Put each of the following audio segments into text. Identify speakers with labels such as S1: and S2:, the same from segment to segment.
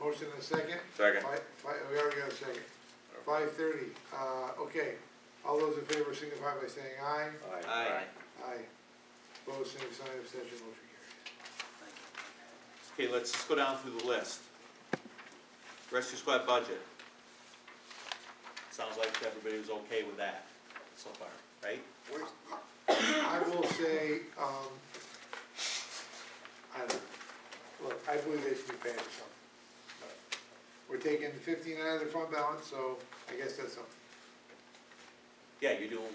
S1: motion and a second?
S2: Second.
S1: Fi- fi- we already got a second. Five thirty, uh, okay, all those in favor signify by saying aye.
S3: Aye.
S1: Aye. Opposed, same sign, abstention, motion carries.
S3: Okay, let's just go down through the list. Rescue squad budget. Sounds like everybody was okay with that so far, right?
S1: I will say, um, I don't, look, I believe they should be paying us something. but We're taking fifteen out of their fund balance, so I guess that's something.
S3: Yeah, you're doing,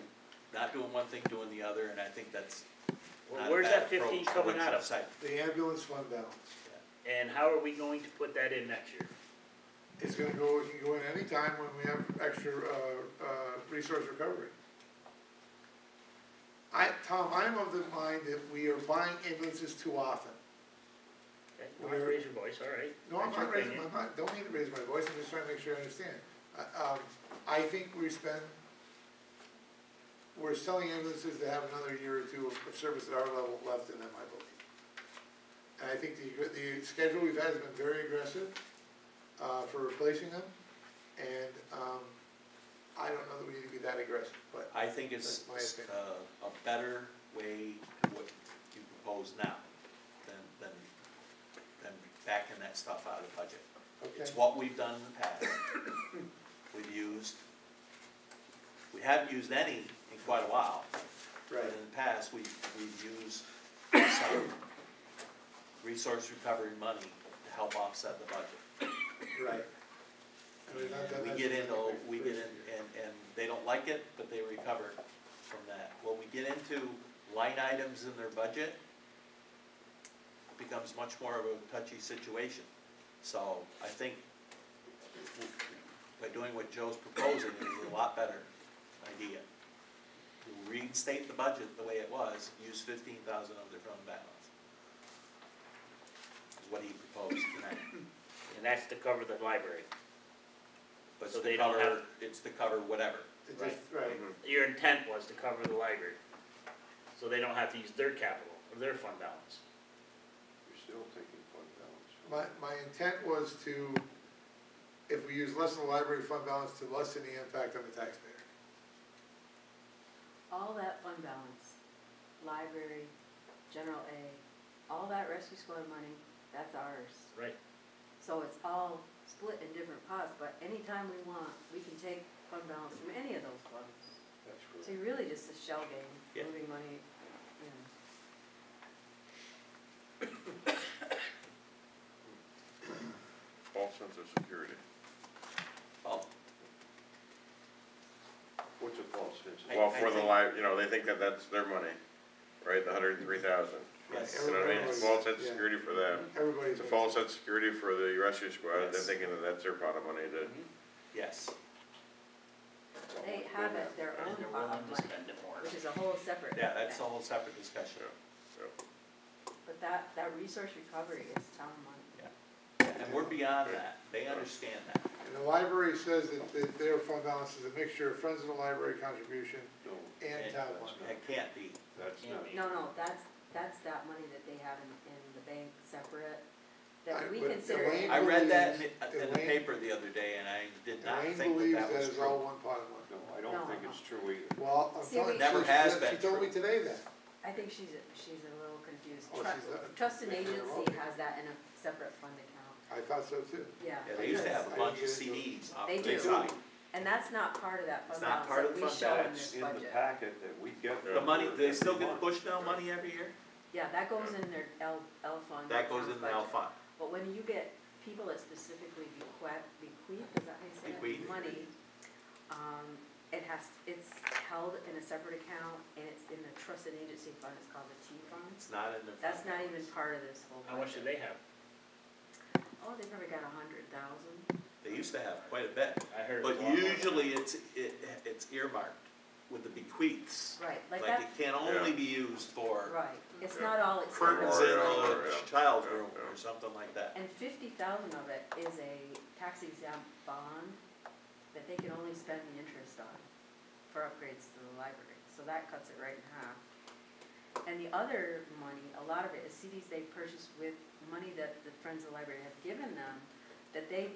S3: not doing one thing, doing the other, and I think that's not
S4: Well,
S3: a
S4: where's
S3: bad
S4: that fifteen
S3: approach. I
S4: coming
S3: wouldn't
S4: out of?
S3: say-
S1: The ambulance fund balance,
S4: And how are we going to put that in next year?
S1: it's gonna go, it can go in anytime when we have extra, uh, uh, resource recovery. I, Tom, I'm of the mind that we are buying ambulances too often.
S4: Okay, Don't raise your voice, all right?
S1: No, I'm
S4: That's your
S1: not raising,
S4: opinion.
S1: I'm not, don't need to raise my voice, I'm just trying to make sure I understand. Uh, um, I think we spend, we're selling ambulances to have another year or two of- of service at our level left in them, I believe. And I think the, the schedule we've had has been very aggressive, uh, for replacing them, and, um, I don't know that we need to be that aggressive, but
S3: I think it's,
S1: That's my opinion.
S3: uh, a better way to what you propose now than, than, than backing that stuff out of the budget.
S1: Okay.
S3: It's what we've done in the past. We've used, we haven't used any in quite a while, but in the past, we, we've used some resource recovery money to help offset the budget.
S1: Right. And we've not done
S3: We
S1: that
S3: get
S1: since
S3: into,
S1: I think
S3: we
S1: first
S3: get in,
S1: year.
S3: and, and they don't like it, but they recover from that. When we get into line items in their budget, it becomes much more of a touchy situation. So I think by doing what Joe's proposing is a lot better idea. Reinstate the budget the way it was, use fifteen thousand of their fund balance. Is what he proposed tonight.
S4: And that's to cover the library.
S3: But it's
S4: So
S3: to
S4: they don't
S3: cover,
S4: have-
S3: it's to cover whatever.
S1: It just, right,
S4: Your intent was to cover the library. So they don't have to use their capital or their fund balance.
S5: You're still taking fund balance.
S1: My, my intent was to, if we use less of the library fund balance, to lessen the impact on the taxpayer.
S6: all that fund balance, library, general aid, all that rescue squad money, that's ours.
S4: Right.
S6: So it's all split in different pots, but anytime we want, we can take fund balance from any of those funds. So you're really just a shell
S3: Yeah.
S6: game, moving money, you know.
S5: False sense of security.
S3: Well,
S5: What's a false sense?
S3: I-
S2: Well, for the
S3: think-
S2: life, you know, they think that that's their money, right, the hundred and three thousand.
S3: Yes.
S2: You know what I mean, it's
S1: Everybody-
S2: false sense of
S1: yeah.
S2: security for them,
S1: Everybody's.
S2: it's a false sense of security for the rescue squad, they're
S3: Yes.
S2: thinking that that's their pot of money to.
S3: yes,
S6: They have it their own pot of money,
S4: it more.
S6: which is a whole separate.
S3: yeah, that's a
S6: thing.
S3: whole separate discussion.
S6: But that, that resource recovery is town money.
S3: And we're beyond that, they understand that.
S1: And the library says that, that their fund balance is a mixture of friends of the library contribution
S5: No,
S1: and town money.
S3: It can't be,
S5: that's not.
S6: No, no, that's, that's that money that they have in, in the bank separate,
S1: I-
S6: that we
S1: but
S6: consider.
S1: Elaine-
S3: I read that in the, in the paper the other day, and I did not
S1: Elaine
S3: think
S1: believes
S3: that that was
S1: is all
S3: true.
S1: one pot of money.
S5: No, I don't
S6: No,
S5: think
S6: no.
S5: it's true either.
S1: Well, I'm
S6: See,
S1: telling
S6: we-
S1: you.
S3: Never
S1: she-
S3: has
S1: she-
S3: been
S1: She told me
S3: true.
S1: today that.
S6: I think she's, she's a little confused.
S1: Oh,
S6: Trust-
S1: she's a-
S6: Trust and
S1: she's a
S6: agency
S1: robot.
S6: has that in a separate fund account,
S1: I thought so too.
S6: yeah.
S3: Yeah, they used to have a bunch of CDs off
S6: They
S3: to the
S6: do.
S3: side.
S6: And that's not part of that
S3: It's
S6: fund
S3: not part of
S6: balance that
S3: the
S6: we
S3: fund
S6: show in
S3: balance.
S6: this
S5: In the
S6: budget.
S5: packet that we get.
S3: The money,
S5: for
S3: they still get the
S5: every month.
S3: Bushnell money every year?
S6: Yeah, that goes in their L, L fund.
S3: That goes
S6: account
S3: in the L
S6: Uh-huh. budget.
S3: fund.
S6: But when you get people that specifically bequeath, bequeath, is that how you say it?
S3: Bequeath.
S6: Money, um, it has, it's held in a separate account, and it's in the trust and agency fund, it's called the T fund.
S3: It's not in the.
S6: That's not even part of this whole
S4: How much do
S6: budget.
S4: they have?
S6: Oh, they probably got a hundred thousand.
S3: They used to have quite a bit,
S4: I heard. it was
S3: but
S4: a lot more.
S3: usually it's, it, it's earmarked with the bequeaths.
S6: Right, like
S3: Like it
S6: that,
S3: can only be used for
S6: right, it's not all
S3: curtains in
S6: expenses.
S2: Yeah,
S3: a
S2: yeah,
S3: child's
S2: yeah,
S3: room
S2: yeah.
S3: or something like that.
S6: And fifty thousand of it is a tax exempt bond that they can only spend the interest on for upgrades to the library, so that cuts it right in half. And the other money, a lot of it is CDs they purchased with money that the Friends of the Library have given them that they